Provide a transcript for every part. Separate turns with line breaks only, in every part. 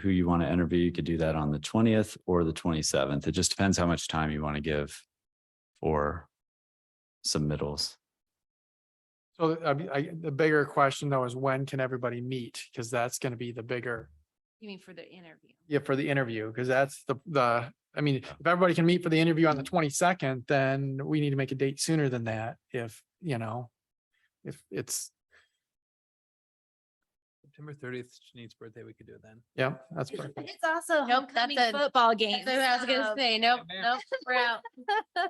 who you want to interview, you could do that on the twentieth or the twenty-seventh. It just depends how much time you want to give for submittals.
So the- I, mean, I, the bigger question though is when can everybody meet? Cause that's gonna be the bigger,
You mean for the interview?
yeah, for the interview, cause that's the, the, I mean, if everybody can meet for the interview on the twenty-second, then we need to make a date sooner than that if, you know, if it's,
September thirtieth, Janine's birthday, we could do it then.
yeah, that's perfect.
It's also
Nope, that's
homecoming
a-
football game.
That's what I was gonna say, nope, nope, we're out,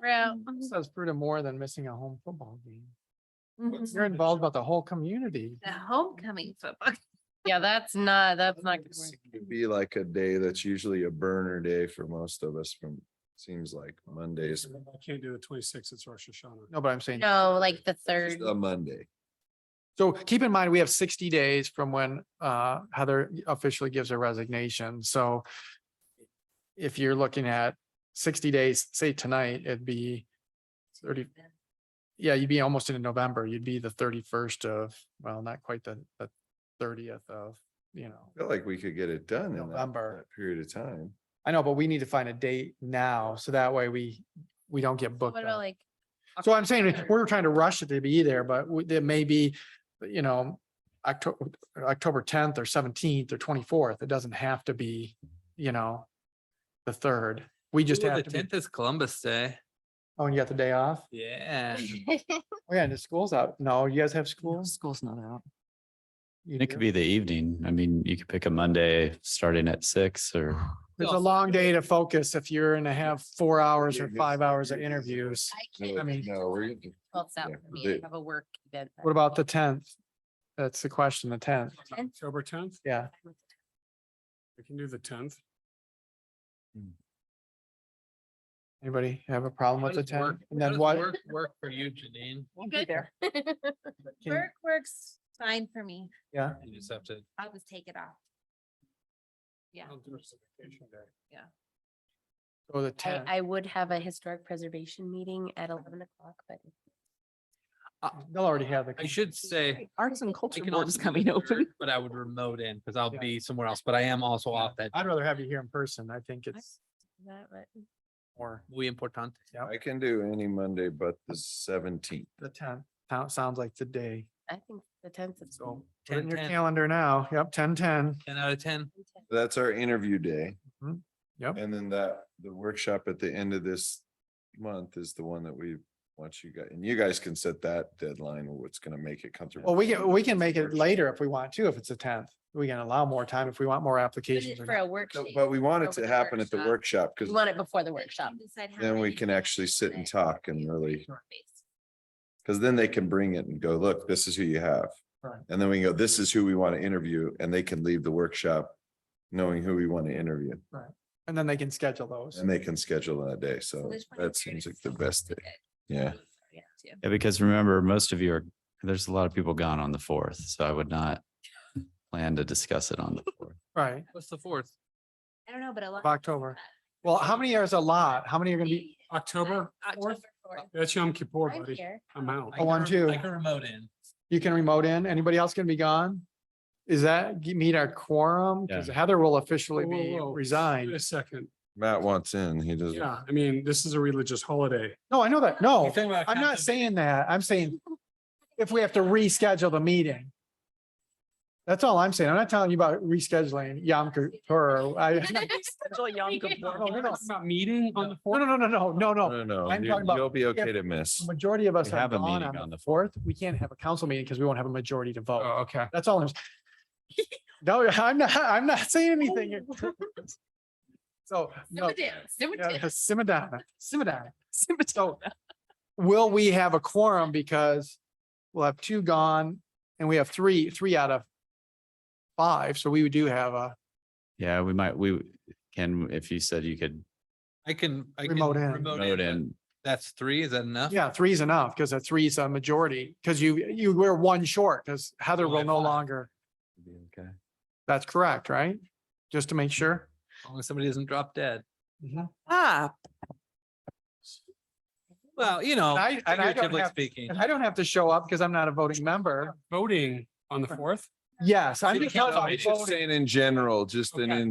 we're out.
Says Fruta more than missing a home football game. You're involved about the whole community.
The homecoming football. Yeah, that's not, that's not. gonna work.
It'd be like a day that's usually a burner day for most of us from, seems like Mondays,
I can't do the twenty-sixth, it's Rosh Hashanah.
No, but I'm saying,
No, like the
just
third,
a Monday.
so keep in mind, we have sixty days from when, uh, Heather officially gives her resignation, so if you're looking at sixty days, say tonight, it'd be thirty. Yeah, you'd be almost into November. You'd be the thirty-first of, well, not quite the, the thirtieth of, you know.
I Feel like we could get it done in that-
November.
that period of time.
I know, but we need to find a date now, so that way we, we don't get booked
what about
up.
like?
So I'm saying,
October?
we're trying to rush it to be there, but w- there may be, you know, October, October tenth or seventeenth or twenty-fourth. It doesn't have to be, you know, the third. We just
Ooh, The
have to be,
tenth is Columbus Day.
oh, and you got the day off?
Yeah.
Oh, yeah, and the school's out. No, you guys have schools?
School's not out.
You
And It
do?
could be the evening. I mean, you could pick a Monday starting at six or
It's a long day to focus if you're gonna have four hours or
Yeah,
five
it's-
hours of interviews.
No,
I mean-
No, we're. gonna-
Well, it's out
yeah,
for me, I
the-
have a work event. that
What about the
day.
tenth? That's the question, the tenth.
Tenth?
October tenth,
Yeah,
I can do the tenth.
anybody have a problem
How
with the
does work-
tenth? And
how
then
does
what?
work Work for you, Janine.
Good.
can-
Work works fine for me,
Yeah.
You just have to.
I'll just take it off. Yeah,
I'll do it as a vacation day.
So the
I,
tenth.
I would have a historic preservation meeting at eleven o'clock, but.
uh, They'll already have the.
I should say.
Arts and
I
culture
can
board's
also do
coming
the
open.
third, But I would remote in because I'll
Yeah. Uh,
be somewhere else, but I am also off that.
I'd rather have you here in person. I think it's
That, but.
more
Muy importante.
I can do any Monday but the seventeenth.
the tenth. Sounds like the day.
I think the tenth is.
So put it in
10,
your
10.
calendar now. Yep, ten, ten.
Ten out of ten.
That's our interview day.
Mhm. Yep.
And then that, the workshop at the end of this month is the one that we want you guys, and you guys can set that deadline, what's gonna make it comfortable.
Well, we can, we can make it
Workshop.
later if we want to, if it's the tenth. We can allow more time if we want more applications. or
For a
not.
workshop.
So- But we want it
over
to
the
happen at the
workshop.
workshop, because
You want it before the workshop.
then we can actually sit and talk and really, because then they can bring it and go, look, this is who you have.
Right.
And then we go, this is who we want to interview, and they can leave the workshop knowing who we want to interview,
And then they can schedule those.
and they can schedule that day, so that seems like the best day, yeah.
Yeah, because remember, most of you are, there's a lot of people gone on the fourth, so I would not plan to discuss it on the fourth.
Right.
What's the fourth?
I don't know, but a lot.
Of October. Well, how many are is a lot? How many are gonna be?
October fourth, that's Yom Kippur,
I'm
buddy.
here.
I'm out.
I can
Oh, one,
rem-
two.
I can remote in.
You can remote in. Anybody else gonna be gone? Is that g- meet our quorum? Because Heather will officially
Whoa,
be
whoa, whoa. Wait
resigned.
a second.
Matt wants in, he doesn't.
Yeah, I mean, this is a religious holiday.
No, I know that. No, Oh, I'm
I'm
not saying that. I'm saying if we have to reschedule the meeting. That's all I'm saying. I'm not telling you about rescheduling Yom Kippur. I, No, no, no.
Talking About meeting on the
no,
fourth.
no, no, no, no, no.
No, no,
Oh, I'm talking
you-
about
you'll be
if-
okay to miss.
The Majority of us
Uh, We
are
have a
gone
meeting
on
on
the
the
fourth. We can't have a council meeting because we won't have a majority to
Oh,
vote.
okay.
That's all I'm. s- No, I'm not, I'm not saying anything. So, no. Yeah, simmer down, simmer down. So will we have a quorum because we'll have two gone and we have three, three out of five. So we do have a,
Yeah, we might, we can, if you said you could
I can, I can.
Remote in.
vote
but
in,
That's three, is that enough?
yeah, three's enough because a three's a majority. Because you, you were one short because Heather
Well, I
will no
thought-
longer,
be okay.
that's correct, right? Just to make sure.
As long as somebody doesn't drop dead.
Ah,
Well, you know,
I- and I don't
figuratively
have-
speaking.
And I don't have to show up because I'm not a voting member.
Voting on the fourth.
Yes, I'm
See,
just
Cal-
talking
I'm
about
just saying in general, just in,
Okay.
in